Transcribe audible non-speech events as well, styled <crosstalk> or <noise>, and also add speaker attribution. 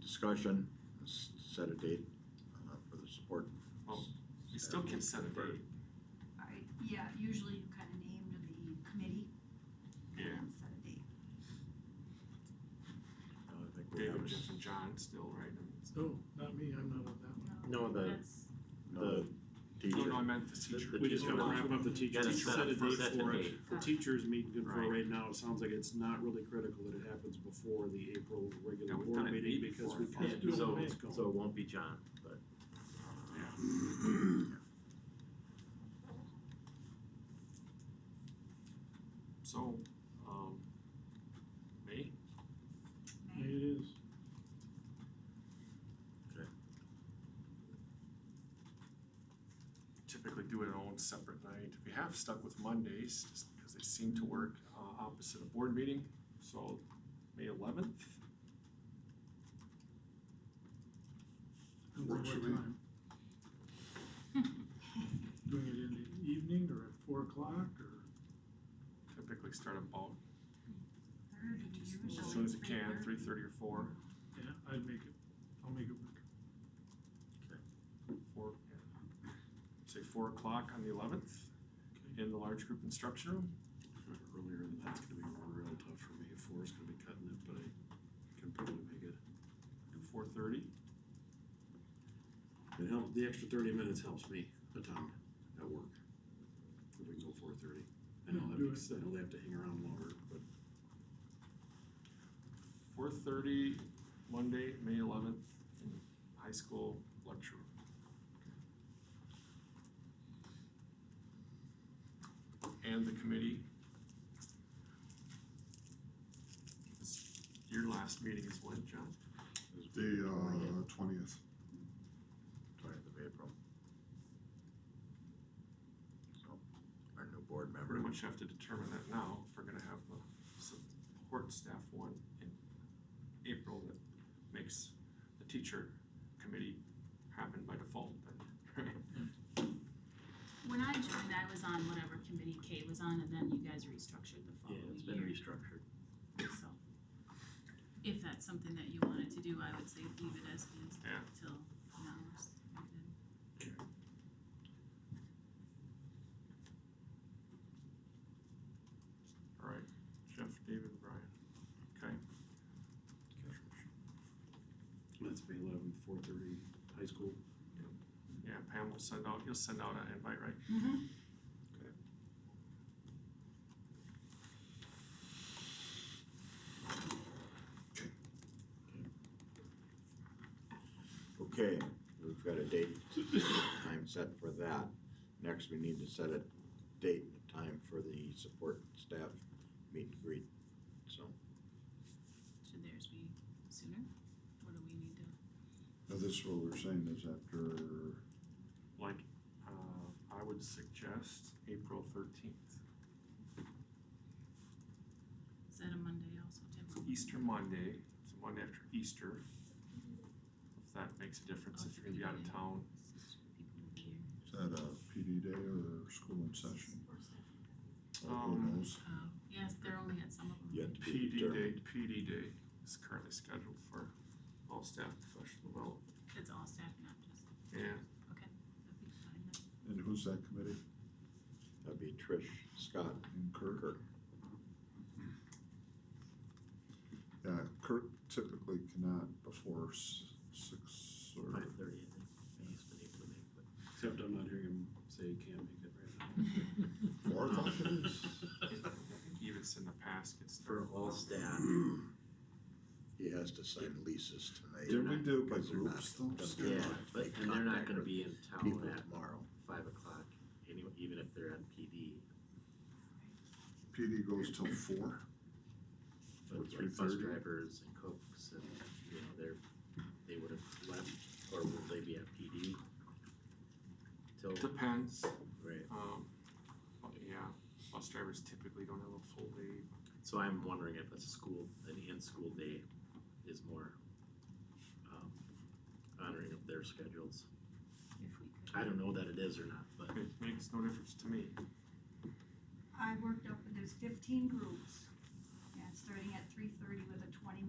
Speaker 1: discussion, s- set a date uh, for the support.
Speaker 2: Well, You still can set a date.
Speaker 3: I, yeah, usually you kind of named the committee and
Speaker 2: Yeah.
Speaker 3: then set a date.
Speaker 1: Uh, I think we have
Speaker 2: David,
Speaker 1: a
Speaker 2: Jeff,
Speaker 1: s-
Speaker 2: and John still, right? I mean, it's-
Speaker 4: No, not me, I'm not on that
Speaker 5: No, the,
Speaker 1: another
Speaker 2: Oh, No,
Speaker 1: teacher.
Speaker 2: no, I meant the teacher.
Speaker 5: The
Speaker 4: one. We just
Speaker 5: teacher
Speaker 4: gotta
Speaker 5: one.
Speaker 4: wrap up the teacher,
Speaker 5: Yeah,
Speaker 4: set
Speaker 5: set
Speaker 4: a
Speaker 5: a-
Speaker 4: date
Speaker 5: set a
Speaker 4: for it.
Speaker 5: date.
Speaker 4: The teacher's meeting good for
Speaker 2: Right.
Speaker 4: right now, it sounds like it's not really critical that it happens before the April regular
Speaker 2: Yeah, we've done
Speaker 4: board
Speaker 2: it
Speaker 4: meeting
Speaker 2: way
Speaker 4: because
Speaker 2: before.
Speaker 4: we
Speaker 2: Yeah,
Speaker 4: can't do it
Speaker 5: so-
Speaker 4: when it's gone.
Speaker 5: so it won't be John, but
Speaker 2: So, um, May,
Speaker 4: Yeah, It is.
Speaker 2: typically do it on a separate night. We have stuck with Mondays, just because they seem to work, uh, opposite a board meeting, so May eleventh.
Speaker 1: Works for me.
Speaker 4: Doing it in the evening or at four o'clock or?
Speaker 2: Typically start about
Speaker 3: Third and usually.
Speaker 2: as soon as you can, three thirty or four,
Speaker 4: Yeah, I'd make it, I'll make it work.
Speaker 2: four, yeah. Say four o'clock on the eleventh in the large group instruction room.
Speaker 4: Earlier than that's gonna be real tough for me, four is gonna be cutting it, but I can probably make it.
Speaker 2: Do four thirty.
Speaker 4: It helps, the extra thirty minutes helps me a ton at work. If we can go four thirty. I know that makes, I know they have to hang around longer, but
Speaker 2: Four thirty, Monday, May eleventh, in the high school lecture. room. And the committee. Is- Your last meeting is when, John?
Speaker 6: The uh, twentieth.
Speaker 1: Twentieth of April. So, our new board
Speaker 2: I
Speaker 1: member.
Speaker 2: pretty much have to determine that now, if we're gonna have the support staff one in April that makes the teacher committee happen by default, then.
Speaker 7: When I joined, I was on whatever committee Kate was on, and then you guys restructured the
Speaker 5: yeah,
Speaker 7: following
Speaker 5: it's been
Speaker 7: year,
Speaker 5: restructured.
Speaker 7: so. If that's something that you wanted to do, I would say leave it as is
Speaker 2: Yeah.
Speaker 7: till now. it's good.
Speaker 2: <laughs> All right, Jeff, David, Brian, okay.
Speaker 4: that's May eleventh, four thirty, high school.
Speaker 2: Yeah, Pam will send out, you'll send out an invite, right?
Speaker 1: Okay, we've got a date, time set for that. Next, we need to set a date and time for the support staff meet and greet, so.
Speaker 7: Should theirs be sooner? What do we need to,
Speaker 6: Now this is what we're saying is after,
Speaker 2: Like, uh, I would suggest April thirteenth,
Speaker 7: is that a Monday also, Tim?
Speaker 2: Easter Monday, it's a Monday after Easter. If that makes a difference, if you're gonna be out of town,
Speaker 6: is that a PD day or school in session? Uh,
Speaker 2: Um,
Speaker 6: Who knows?
Speaker 7: Oh, yes, they're only at some of them.
Speaker 1: Yet to be
Speaker 2: PD
Speaker 1: determined.
Speaker 2: day, PD day is currently scheduled for all staff professional development.
Speaker 7: It's all staff, not just,
Speaker 2: Yeah,
Speaker 7: that'd be fine, then.
Speaker 6: And who's that committee?
Speaker 1: That'd be Trish, Scott,
Speaker 6: And Kirk?
Speaker 1: Kirk.
Speaker 6: Yeah, Kirk typically cannot before s- six or,
Speaker 5: Five thirty, I think. He's been able to make, but
Speaker 4: Except I'm not hearing him say he can't make it right now.
Speaker 6: four o'clock it is? <laughs>
Speaker 4: <laughs>
Speaker 2: even in the past, it's.
Speaker 5: for all staff,
Speaker 1: He has to sign leases tonight.
Speaker 6: Did we do it by
Speaker 1: Because they're
Speaker 6: groups though?
Speaker 1: not-
Speaker 6: Scott?
Speaker 5: yeah, but and they're not gonna be in
Speaker 1: People
Speaker 5: town at
Speaker 1: tomorrow.
Speaker 5: five o'clock anyway, even if they're at PD.
Speaker 6: PD goes till four? Or
Speaker 5: But like bus
Speaker 6: 3:30?
Speaker 5: drivers and cooks and, you know, they're, they would have left, or will they be at PD? Till,
Speaker 2: It Depends,
Speaker 5: right,
Speaker 2: um, but yeah, bus drivers typically don't have a full day,
Speaker 5: so I'm wondering if a school, an in-school day is more um honoring of their schedules.
Speaker 7: if we could.
Speaker 5: I don't know that it is or not, but
Speaker 2: it makes no difference to me.
Speaker 3: I worked up, there's fifteen groups, and it's starting at three thirty with a twenty